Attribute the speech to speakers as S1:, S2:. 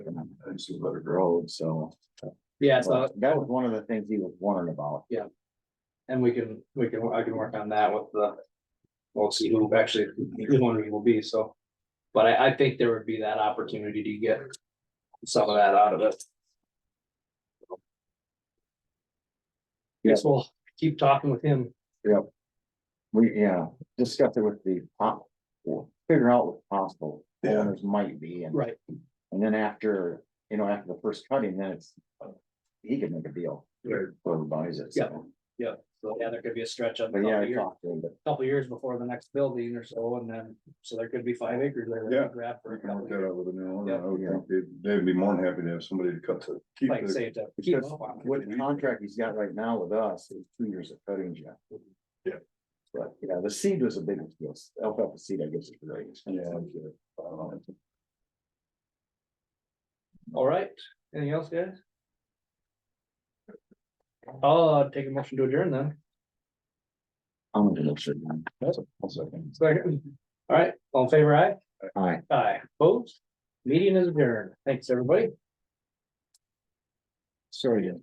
S1: thinks it's a better road, so.
S2: Yeah, so,
S1: That was one of the things he was wondering about.
S2: and we can, we can, I can work on that with the. We'll see who actually, who one of you will be, so. But I, I think there would be that opportunity to get some of that out of it. Guess we'll keep talking with him.
S3: We, yeah, discuss it with the, pop- well, figure out what possible owners might be, and,
S2: Right.
S3: and then after, you know, after the first cutting, then it's. He can make a deal, whoever buys it, so,
S2: Yeah, so yeah, there could be a stretch of a
S3: but yeah,
S2: couple
S3: I
S2: years,
S3: talked to him, but
S2: couple years before the next building or so, and then, so there could be five acres there. that we
S1: Yeah.
S2: Grab for
S1: We
S2: a
S1: can
S2: couple
S1: work
S2: of
S1: that
S2: years,
S1: out with the new
S2: Yeah.
S1: owner. I would think they'd, they'd be more than happy to have somebody to cut to. keep
S2: like
S1: the-
S2: say to keep
S3: because
S2: up on it.
S3: what contract he's got right now with us is two years of cutting, Jeff.
S1: Yeah.
S3: But, yeah, the seed was a big deal, alfalfa seed, I guess, is great. uh,
S1: Yeah. I'm sure. I don't know.
S2: All right, anything else, guys? I'll uh, take a motion to adjourn then.
S3: I'm gonna look sure.
S1: That's a I'll second.
S2: Second. All right, all in favor, aye?
S3: Hi.
S2: Aye. Opposed? Meeting is adjourned. Thanks, everybody.
S3: Sorry,